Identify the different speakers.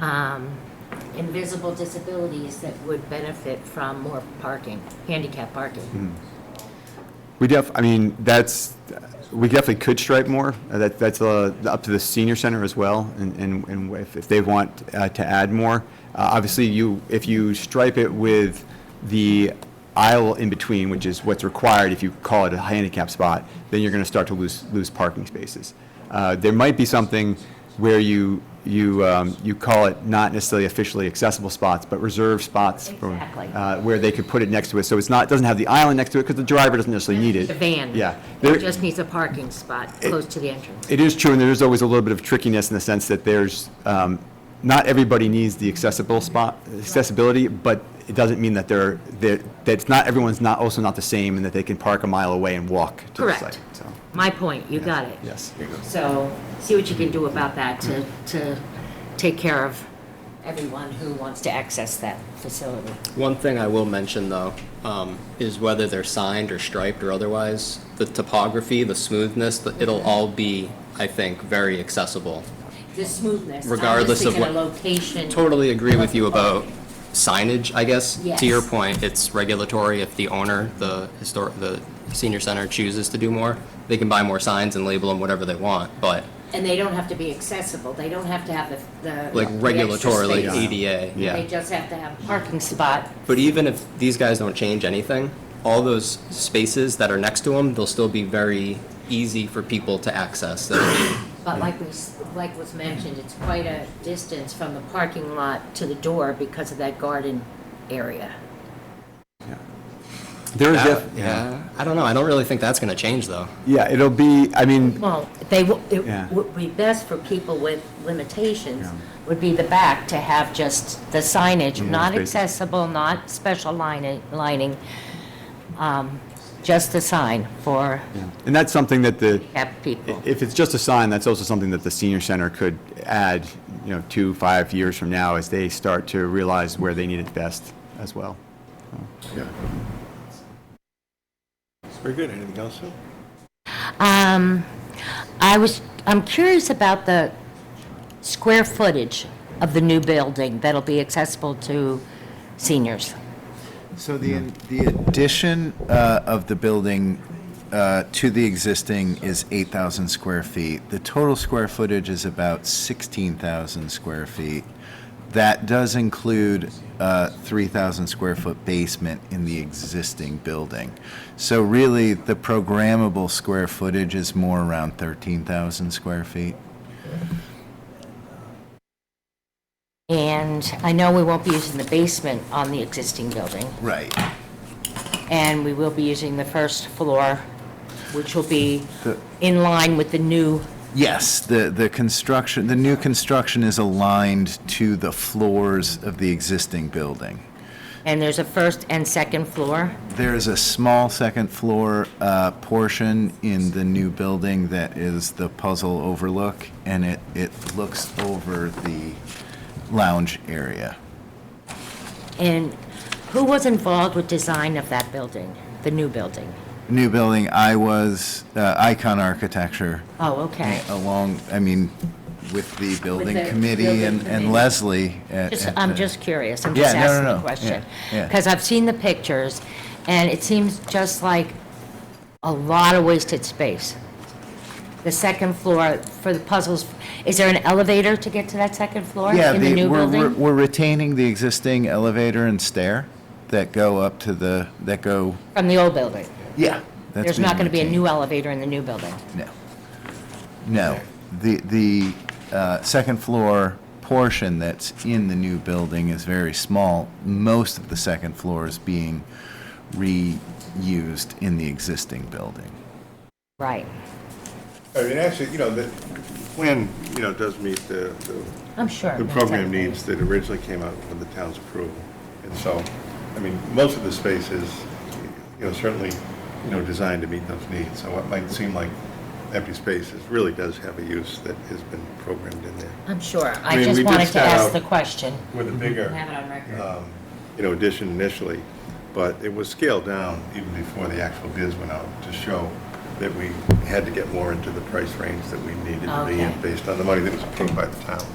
Speaker 1: um, invisible disabilities that would benefit from more parking, handicap
Speaker 2: Hmm.
Speaker 1: parking.
Speaker 3: We def, I mean, that's, we definitely could stripe more. Uh, That, that's uh, up to the senior center as well, and, and and if, if they want uh, to add more. Uh, Obviously, you, if you stripe it with the aisle in between, which is what's required if you call it a handicap spot, then you're gonna start to lose, lose parking spaces. Uh, There might be something where you, you, um, you call it not necessarily officially accessible spots, but reserved spots. for,
Speaker 1: Exactly.
Speaker 3: uh, Where they could put it next to it, so it's not, doesn't have the island next to it, because the driver doesn't necessarily need it.
Speaker 1: The van.
Speaker 3: Yeah. There-
Speaker 1: It just needs a parking spot close to the entrance.
Speaker 3: It is true, and there is always a little bit of trickiness in the sense that there's, um, not everybody needs the accessible spot, accessibility, but it doesn't mean that they're, that that it's not, everyone's not, also not the same, and that they can park a mile away and walk to the
Speaker 1: Correct.
Speaker 3: site. So,
Speaker 1: My point, you got it.
Speaker 3: Yes.
Speaker 1: So see what you can do about that to, to take care of everyone who wants to access that facility.
Speaker 2: One thing I will mention, though, um, is whether they're signed or striped or otherwise, the topography, the smoothness, the- it'll all be, I think, very accessible.
Speaker 1: The smoothness. I'm just
Speaker 2: Regardless of
Speaker 1: thinking
Speaker 2: what-
Speaker 1: Location.
Speaker 2: Totally agree with you about signage, I guess. To your
Speaker 1: Yes.
Speaker 2: point, it's regulatory if the owner, the histor, the senior center chooses to do more. They can buy more signs and label them whatever they want, but
Speaker 1: And they don't have to be accessible. They don't have to have the, the.
Speaker 2: like
Speaker 1: the extra
Speaker 2: regulatory, like
Speaker 1: space.
Speaker 2: ADA, yeah.
Speaker 1: They just have to have a parking spot.
Speaker 2: But even if these guys don't change anything, all those spaces that are next to them, they'll still be very easy for people to access. They'll be-
Speaker 1: But like we, s- like was mentioned, it's quite a distance from the parking lot to the door because of that garden area.
Speaker 3: There is,
Speaker 2: that-
Speaker 3: def-
Speaker 2: Yeah, I don't know. I don't really think that's gonna change though.
Speaker 3: yeah, it'll be, I mean,
Speaker 1: Well, they, w-
Speaker 3: Yeah.
Speaker 1: it would be best for people with limitations,
Speaker 3: Yeah.
Speaker 1: would be the back to have just the signage,
Speaker 3: more
Speaker 1: not
Speaker 3: spaces.
Speaker 1: accessible, not special lining, lining, um, just the sign for
Speaker 3: yeah. and that's something that the,
Speaker 1: handicapped people.
Speaker 3: If it's just a sign, that's also something that the senior center could add, you know, two, five years from now as they start to realize where they need it best as well.
Speaker 4: Yeah. Very good. Anything else, Sue?
Speaker 1: Um, I was, I'm curious about the square footage of the new building that'll be accessible to seniors.
Speaker 5: So the, the addition uh, of the building uh, to the existing is 8,000 square feet. The total square footage is about 16,000 square feet. That does include a 3,000 square foot basement in the existing building. So really, the programmable square footage is more around 13,000 square feet.
Speaker 1: And I know we won't be using the basement on the existing building,
Speaker 5: Right.
Speaker 1: and we will be using the first floor, which will be
Speaker 5: The-
Speaker 1: in line with the new,
Speaker 5: Yes, the, the construction, the new construction is aligned to the floors of the existing building.
Speaker 1: and there's a first and second floor.
Speaker 5: There is a small second floor uh, portion in the new building that is the puzzle overlook, and it, it looks over the lounge area.
Speaker 1: And who was involved with design of that building, the new building?
Speaker 5: New building, I was, uh, Icon Architecture,
Speaker 1: Oh, okay.
Speaker 5: along, I mean, with the building
Speaker 1: the
Speaker 5: committee
Speaker 1: building
Speaker 5: and
Speaker 1: committee.
Speaker 5: and Leslie. at-
Speaker 1: Just,
Speaker 5: at
Speaker 1: I'm
Speaker 5: the-
Speaker 1: just curious, I'm
Speaker 5: uh, Yeah,
Speaker 1: just
Speaker 5: no, no,
Speaker 1: asking
Speaker 5: no.
Speaker 1: a
Speaker 5: Yeah,
Speaker 1: question.
Speaker 5: yeah.
Speaker 1: Because I've seen the pictures, and it seems just like a lot of wasted space. The second floor for the puzzles, is there an elevator to get to that second floor
Speaker 5: Yeah,
Speaker 1: in the
Speaker 5: the-
Speaker 1: new
Speaker 5: we're- we're-
Speaker 1: building?
Speaker 5: We're retaining the existing elevator and stair that go up to the, that go,
Speaker 1: From the old building?
Speaker 5: yeah. that's
Speaker 1: There's not
Speaker 5: being
Speaker 1: going to be a
Speaker 5: retained.
Speaker 1: new elevator in the new building?
Speaker 5: No. No. The, the uh, second floor portion that's in the new building is very small. Most of the second floor is being reused in the existing building.
Speaker 1: Right.
Speaker 4: I mean, actually, you know, the plan, you know, does meet the, the-
Speaker 1: I'm sure.
Speaker 4: the
Speaker 1: that's
Speaker 4: program
Speaker 1: okay.
Speaker 4: needs that originally came out with the town's approval. And so, I mean, most of the space is, you know, certainly, you know, designed to meet those needs. So what might seem like empty spaces really does have a use that has been programmed in there.
Speaker 1: I'm sure.
Speaker 4: I
Speaker 1: I
Speaker 4: mean, we
Speaker 1: just
Speaker 4: did
Speaker 1: wanted to
Speaker 4: start
Speaker 1: ask
Speaker 4: out-
Speaker 1: the question.
Speaker 4: With a bigger.
Speaker 1: Have it on record.
Speaker 4: um, you know, addition initially, but it was scaled down even before the actual bids went out to show that we had to get more into the price range that we needed to be
Speaker 1: Okay.
Speaker 4: in based on the money that was approved by the town.